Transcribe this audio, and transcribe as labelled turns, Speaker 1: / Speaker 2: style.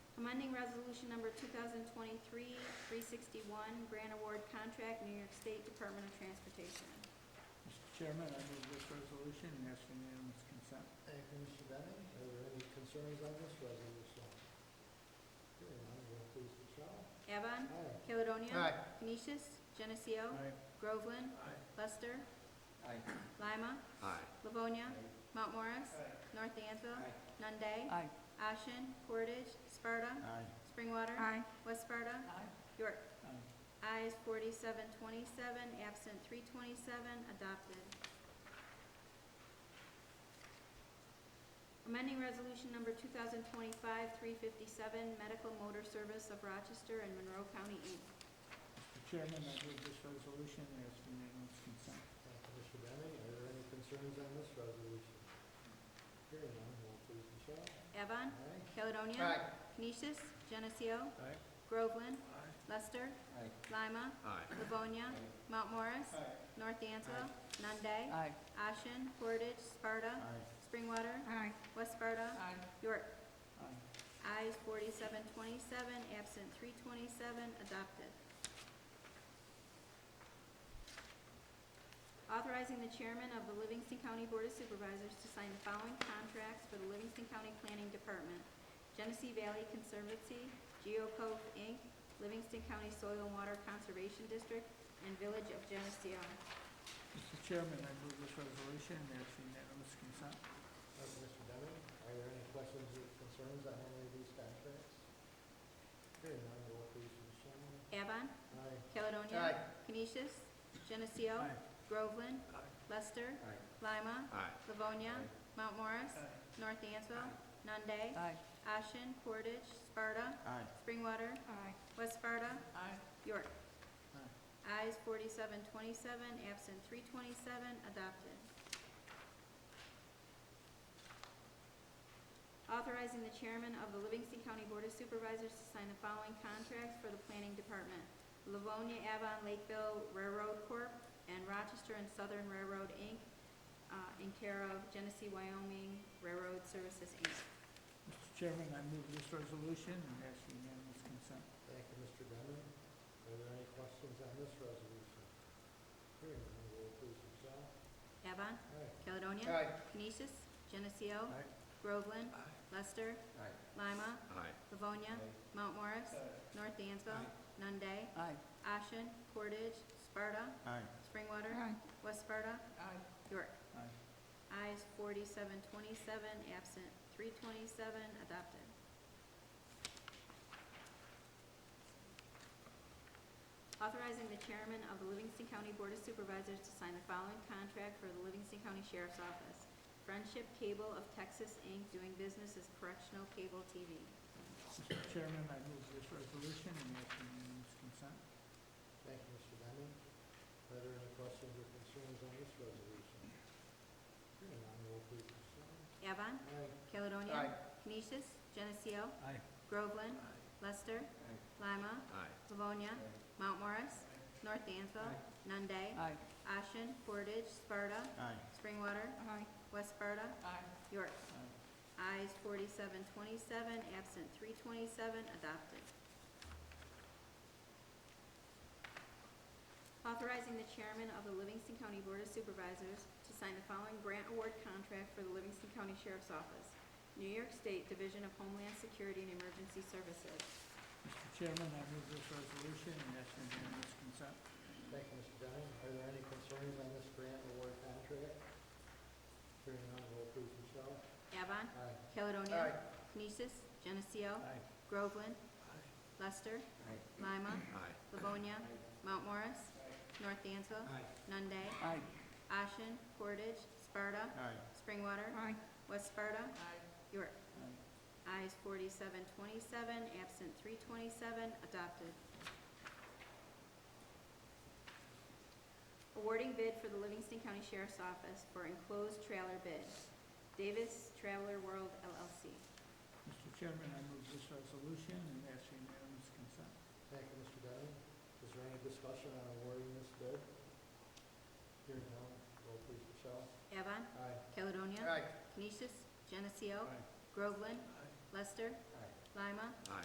Speaker 1: amending resolution number 2023-361, grant award contract, New York State Department of Transportation.
Speaker 2: Mr. Chairman, I move this resolution and ask for unanimous consent.
Speaker 3: Thank you, Mr. Bennett. Are there any concerns on this resolution? Hearing none, will you please, Michelle?
Speaker 1: Avon.
Speaker 3: Aye.
Speaker 1: Caledonia.
Speaker 3: Aye.
Speaker 1: Canisius. Geneseo.
Speaker 2: Aye.
Speaker 1: Groveland.
Speaker 3: Aye.
Speaker 1: Lester.
Speaker 2: Aye.
Speaker 1: Lima.
Speaker 4: Aye.
Speaker 1: Livonia. Mount Morris. North Dansville. Nunde,
Speaker 5: Aye.
Speaker 1: Ashen. Portage. Sparta.
Speaker 3: Aye.
Speaker 1: Springwater.
Speaker 5: Aye.
Speaker 1: West Sparta.
Speaker 5: Aye.
Speaker 1: York.
Speaker 2: Aye.
Speaker 1: Ayes forty-seven twenty-seven, absent three twenty-seven, adopted. Amending resolution number two thousand twenty-five, three fifty-seven, Medical Motor Service of Rochester and Monroe County, Inc.
Speaker 2: Mr. Chairman, I move this resolution and ask for unanimous consent.
Speaker 3: Thank you, Mr. Bennett. Are there any concerns on this resolution? Hearing none, will you please, Michelle?
Speaker 1: Avon.
Speaker 3: Aye.
Speaker 1: Caledonia.
Speaker 3: Aye.
Speaker 1: Canisius. Geneseo.
Speaker 2: Aye.
Speaker 1: Groveland.
Speaker 2: Aye.
Speaker 1: Lester.
Speaker 2: Aye.
Speaker 1: Lima.
Speaker 4: Aye.
Speaker 1: Livonia. Mount Morris.
Speaker 2: Aye.
Speaker 1: North Dansville. Nunde,
Speaker 5: Aye.
Speaker 1: Ashen. Portage. Sparta. Springwater.
Speaker 5: Aye.
Speaker 1: West Sparta.
Speaker 5: Aye.
Speaker 1: York.
Speaker 2: Aye.
Speaker 1: Ayes forty-seven twenty-seven, absent three twenty-seven, adopted. Authorizing the chairman of the Livingston County Board of Supervisors to sign the following contracts for the Livingston County Planning Department. Genesee Valley Conservancy, Geocove Inc., Livingston County Soil and Water Conservation District, and Village of Geneseo.
Speaker 2: Mr. Chairman, I move this resolution and ask for unanimous consent.
Speaker 3: Thank you, Mr. Bennett. Are there any questions or concerns on any of these contracts? Hearing none, will you please, Michelle?
Speaker 1: Avon,
Speaker 3: Aye.
Speaker 1: Caledonia.
Speaker 3: Aye.
Speaker 1: Canisius, Geneseo.
Speaker 2: Aye.
Speaker 1: Groveland. Lester. Lima.
Speaker 4: Aye.
Speaker 1: Livonia. Mount Morris. North Dansville. Nunde.
Speaker 5: Aye.
Speaker 1: Ashen. Portage. Sparta.
Speaker 2: Aye.
Speaker 1: Springwater.
Speaker 5: Aye.
Speaker 1: West Sparta.
Speaker 5: Aye.
Speaker 1: York.
Speaker 2: Aye.
Speaker 1: Ayes forty-seven twenty-seven, absent three twenty-seven, adopted. Authorizing the chairman of the Livingston County Board of Supervisors to sign the following contracts for the planning department. Livonia Avon Lakeville Railroad Corp. and Rochester and Southern Railroad, Inc., uh, in care of Genesee Wyoming Railroad Services, Inc.
Speaker 2: Mr. Chairman, I move this resolution and ask for unanimous consent.
Speaker 3: Thank you, Mr. Bennett. Are there any questions on this resolution? Hearing none, will you please, Michelle?
Speaker 1: Avon.
Speaker 3: Aye.
Speaker 1: Caledonia.
Speaker 3: Aye.
Speaker 1: Canisius. Geneseo. Groveland. Lester. Lima.
Speaker 4: Aye.
Speaker 1: Livonia. Mount Morris. North Dansville. Nunde.
Speaker 5: Aye.
Speaker 1: Ashen. Portage. Sparta.
Speaker 2: Aye.
Speaker 1: Springwater.
Speaker 5: Aye.
Speaker 1: West Sparta.
Speaker 5: Aye.
Speaker 1: York.
Speaker 2: Aye.
Speaker 1: Ayes forty-seven twenty-seven, absent three twenty-seven, adopted. Authorizing the chairman of the Livingston County Board of Supervisors to sign the following contract for the Livingston County Sheriff's Office. Friendship Cable of Texas, Inc., doing business as Correctional Cable TV.
Speaker 2: Mr. Chairman, I move this resolution and ask for unanimous consent.
Speaker 3: Thank you, Mr. Bennett. Are there any questions or concerns on this resolution? Hearing none, will you please, Michelle?
Speaker 1: Avon.
Speaker 3: Aye.
Speaker 1: Caledonia.
Speaker 3: Aye.
Speaker 1: Canisius. Geneseo.
Speaker 2: Aye.
Speaker 1: Groveland. Lester. Lima.
Speaker 4: Aye.
Speaker 1: Livonia. Mount Morris. North Dansville. Nunde.
Speaker 5: Aye.
Speaker 1: Ashen, Portage, Sparta.
Speaker 2: Aye.
Speaker 1: Springwater.
Speaker 5: Aye.
Speaker 1: West Sparta.
Speaker 5: Aye.
Speaker 1: York.
Speaker 2: Aye.
Speaker 1: Ayes forty-seven twenty-seven, absent three twenty-seven, adopted. Authorizing the chairman of the Livingston County Board of Supervisors to sign the following grant award contract for the Livingston County Sheriff's Office. New York State Division of Homeland Security and Emergency Services.
Speaker 2: Mr. Chairman, I move this resolution and ask for unanimous consent.
Speaker 3: Thank you, Mr. Bennett. Are there any concerns on this grant award contract? Hearing none, will you please, Michelle?
Speaker 1: Avon.
Speaker 3: Aye.
Speaker 1: Caledonia.
Speaker 3: Aye.
Speaker 1: Canisius. Geneseo.
Speaker 2: Aye.
Speaker 1: Groveland. Lester. Lima.
Speaker 4: Aye.
Speaker 1: Livonia. Mount Morris. North Dansville.
Speaker 3: Aye.
Speaker 1: Nunde.
Speaker 5: Aye.
Speaker 1: Ashen. Portage. Sparta.
Speaker 2: Aye.
Speaker 1: Springwater.
Speaker 5: Aye.
Speaker 1: West Sparta.
Speaker 5: Aye.
Speaker 1: York.
Speaker 2: Aye.
Speaker 1: Ayes forty-seven twenty-seven, absent three twenty-seven, adopted. Awarding bid for the Livingston County Sheriff's Office for enclosed trailer bid. Davis Traveler World LLC.
Speaker 2: Mr. Chairman, I move this resolution and ask for unanimous consent.
Speaker 3: Thank you, Mr. Bennett. Is there any discussion on awarding this bid? Hearing none, will you please, Michelle?
Speaker 1: Avon.
Speaker 3: Aye.
Speaker 1: Caledonia. Canisius. Geneseo. Groveland. Lester.
Speaker 3: Aye.
Speaker 1: Lima.
Speaker 4: Aye.